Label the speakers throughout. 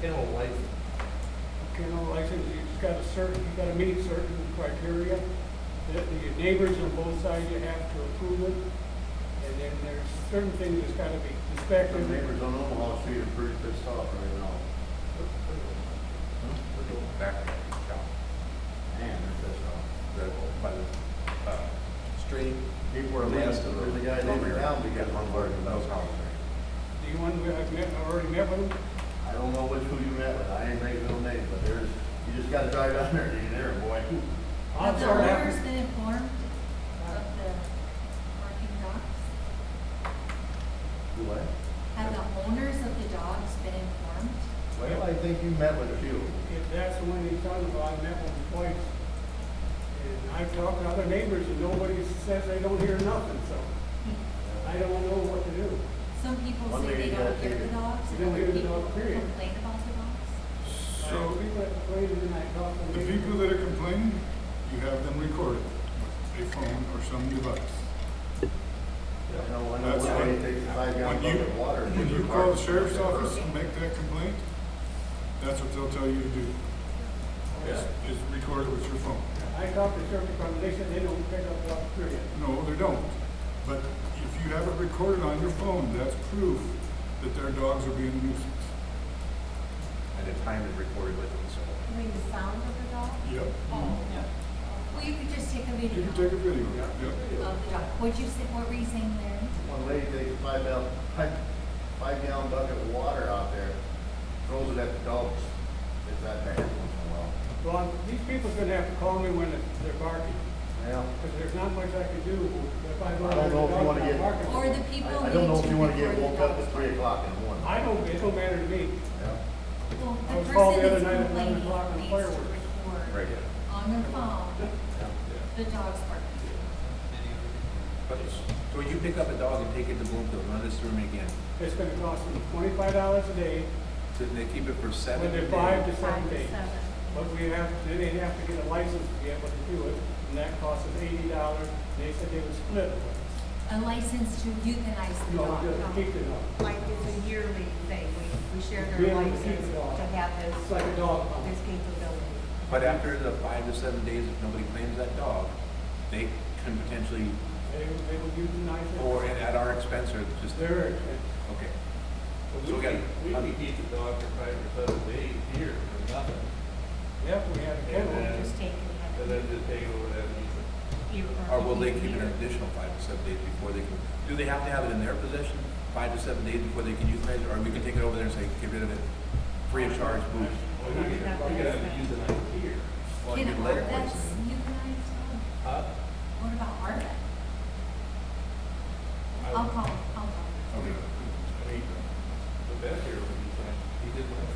Speaker 1: kennel license?
Speaker 2: Kennel license, you've got to certain, you've got to meet certain criteria. The the neighbors on both sides, you have to approve it. And then there's certain things that's got to be
Speaker 3: The
Speaker 2: inspected.
Speaker 3: neighbors on Omaha Street are pretty pissed off right now.
Speaker 1: We're going back to the shop,
Speaker 3: Man, they're pissed off.
Speaker 1: the, by the, uh, stream.
Speaker 3: People are leaving, there's a guy leaving town because of work.
Speaker 1: Those houses.
Speaker 2: The one we- I've met, I've already met with them.
Speaker 3: I don't know which who you met with, I ain't making no names, but there's, you just gotta drive down there, and you're there, boy.
Speaker 4: Have
Speaker 2: Odds
Speaker 4: the
Speaker 2: are that-
Speaker 4: owners been informed of the barking dogs?
Speaker 3: Do what?
Speaker 4: Have the owners of the dogs been informed?
Speaker 3: Well, I think you met with a few.
Speaker 2: If that's the one he's talking about, I met with him twice. And I've talked to other neighbors and nobody says they don't hear nothing, so I don't know what to do.
Speaker 4: Some people
Speaker 3: One
Speaker 4: say they
Speaker 3: lady
Speaker 4: don't
Speaker 3: got
Speaker 4: hear the
Speaker 3: taken.
Speaker 4: dogs,
Speaker 2: They
Speaker 4: and
Speaker 2: don't
Speaker 4: other
Speaker 2: hear the
Speaker 4: people
Speaker 2: dog, period.
Speaker 4: complain about the dogs.
Speaker 2: So
Speaker 5: So,
Speaker 2: we went, waited and I talked to
Speaker 5: the
Speaker 2: them.
Speaker 5: people that are complaining, you have them recorded with a phone or some device.
Speaker 3: You know, I know
Speaker 5: That's
Speaker 3: one
Speaker 5: when,
Speaker 3: lady takes a five gallon
Speaker 5: when you,
Speaker 3: bucket of water. and
Speaker 5: when
Speaker 3: puts
Speaker 5: you
Speaker 3: her
Speaker 5: call
Speaker 3: car-
Speaker 5: the sheriff's office and make that complaint, that's what they'll tell you to do, is, is record it with your phone.
Speaker 2: I talked to certain department, they said they don't pick up dogs, period.
Speaker 5: No, they don't. But if you have it recorded on your phone, that's proof that their dogs are being a nuisance.
Speaker 1: At the time they recorded with them, so.
Speaker 4: I mean, the sound of the dog?
Speaker 5: Yep.
Speaker 4: Oh. Well, you could just take a
Speaker 5: Mm-hmm.
Speaker 4: video
Speaker 5: You can
Speaker 4: of
Speaker 5: take a video, yep.
Speaker 4: the dog. What'd you say, what were you saying there?
Speaker 3: One lady takes a five gallon, five, five gallon bucket of water out there, throws it at the dogs. It's that bad once in a while.
Speaker 2: Well, these people are gonna have to call me when they're barking,
Speaker 3: Yeah.
Speaker 2: because there's not much I can do if I go
Speaker 3: I
Speaker 2: out there and the dog's not
Speaker 3: don't know if you wanna get-
Speaker 2: barking.
Speaker 4: Or the
Speaker 3: I,
Speaker 4: people
Speaker 3: I
Speaker 4: need
Speaker 3: don't know
Speaker 4: to
Speaker 3: if you wanna get
Speaker 4: record
Speaker 3: woke
Speaker 4: the
Speaker 3: up at
Speaker 4: dogs.
Speaker 3: three o'clock in the morning.
Speaker 2: I don't, it don't matter to me.
Speaker 3: Yeah.
Speaker 4: Well,
Speaker 2: I was
Speaker 4: the
Speaker 2: called the other
Speaker 4: person that's
Speaker 2: night at eleven
Speaker 4: complaining
Speaker 2: o'clock on
Speaker 4: needs to
Speaker 2: fireworks.
Speaker 1: Right,
Speaker 4: record
Speaker 1: yeah.
Speaker 4: on their phone
Speaker 3: yeah.
Speaker 4: the dogs barking.
Speaker 1: But, it's- so you pick up a dog and take it to Bloomfield, run this through them again.
Speaker 2: It's gonna cost them twenty-five dollars a day,
Speaker 1: So they keep it for seven
Speaker 2: whether
Speaker 1: days?
Speaker 2: five to seven
Speaker 4: Five to
Speaker 2: days.
Speaker 4: seven.
Speaker 2: But we have, then they have to get a license to be able to do it, and that costs us eighty dollars, they said they would split it. with
Speaker 4: A license to euthanize
Speaker 2: us.
Speaker 4: the
Speaker 2: No,
Speaker 4: dog.
Speaker 2: just keep it up.
Speaker 6: Like it's a yearly thing, we, we share
Speaker 2: We
Speaker 6: their
Speaker 2: have to
Speaker 6: license
Speaker 2: keep it all.
Speaker 6: to have this,
Speaker 2: It's like a dog pound.
Speaker 6: this capability.
Speaker 1: But after the five to seven days, if nobody claims that dog, they can potentially,
Speaker 2: They, they would euthanize it.
Speaker 1: or at at our expense, or just,
Speaker 2: They're,
Speaker 1: okay. So we got,
Speaker 7: We can keep the dog for five or seven days here for nothing,
Speaker 2: yeah, we have a kennel.
Speaker 6: Just take
Speaker 7: and
Speaker 6: it,
Speaker 7: then just take over that lease.
Speaker 6: have it.
Speaker 1: or will they keep it an additional five to seven days before they can, do they have to have it in their possession, five to seven days before they can euthanize it, or we can take it over there and say, get rid of it, free of charge, boom?
Speaker 7: Or we could, we could have it used in like here.
Speaker 1: Well,
Speaker 4: Can
Speaker 1: you let it
Speaker 4: Arvex
Speaker 1: poison it.
Speaker 4: euthanize dogs?
Speaker 7: Huh?
Speaker 4: What about Arvex?
Speaker 7: I
Speaker 4: I'll
Speaker 7: would-
Speaker 4: call, I'll call.
Speaker 1: Okay.
Speaker 7: I mean, the vet here would be fine, he did mine,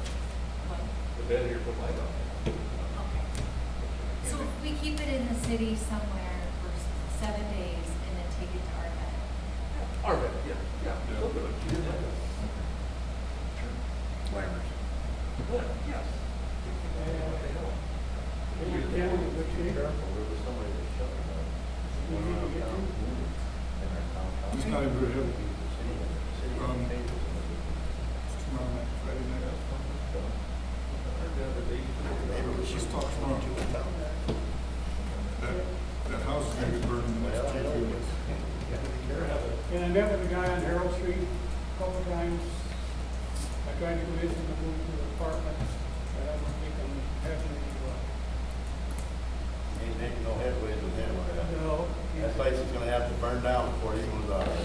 Speaker 4: What?
Speaker 7: the vet here put my dog.
Speaker 4: Okay. Oh. So if we keep it in the city somewhere for s- seven days and then take it to Arvex.
Speaker 7: Our vet, yeah, yeah, he'll do it, he did my dog.
Speaker 1: Whatever.
Speaker 7: Well, yes. What the hell?
Speaker 2: They have a kennel in good shape.
Speaker 3: Careful, there was somebody that shut it down.
Speaker 2: We need to
Speaker 3: um,
Speaker 2: get them.
Speaker 5: It's not even very heavy. Um,
Speaker 3: Well,
Speaker 5: It's tomorrow night, Friday night.
Speaker 7: The other day,
Speaker 5: She's talking tomorrow. That, that house is gonna be burned in the
Speaker 3: I
Speaker 5: next two
Speaker 3: don't.
Speaker 5: weeks.
Speaker 2: And I met with a guy on Harold Street a couple of times. I tried to convince him to move to the apartment, but I don't think I'm having any luck.
Speaker 3: Ain't making no headway with him, like that.
Speaker 2: No,
Speaker 3: That
Speaker 2: he's-
Speaker 3: place is gonna have to burn down before he moves out of there.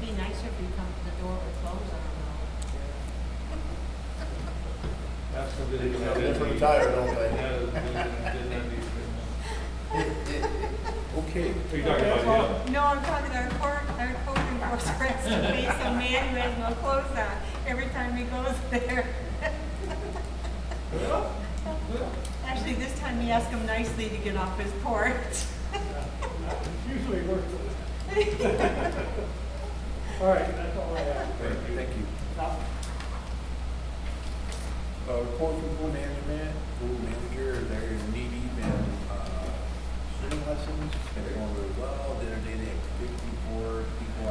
Speaker 6: Be nicer if you come to the door with clothes on,
Speaker 7: That's the
Speaker 3: They
Speaker 7: video.
Speaker 3: just retire, don't they?
Speaker 7: Yeah, didn't- didn't have these-
Speaker 1: Okay.
Speaker 7: Are you talking about him?
Speaker 6: though. No, I'm talking our court, our code enforcement has to be some man who has no clothes on every time he goes there. Actually, this time he asked him nicely to get off his porch.
Speaker 2: usually works. All right, that's all I have.
Speaker 1: Thank you. Thank you.
Speaker 2: Now,
Speaker 1: Uh, report from pool management, pool manager, they're knee deep in, uh, swimming lessons, they're going really well, the other day they had fifty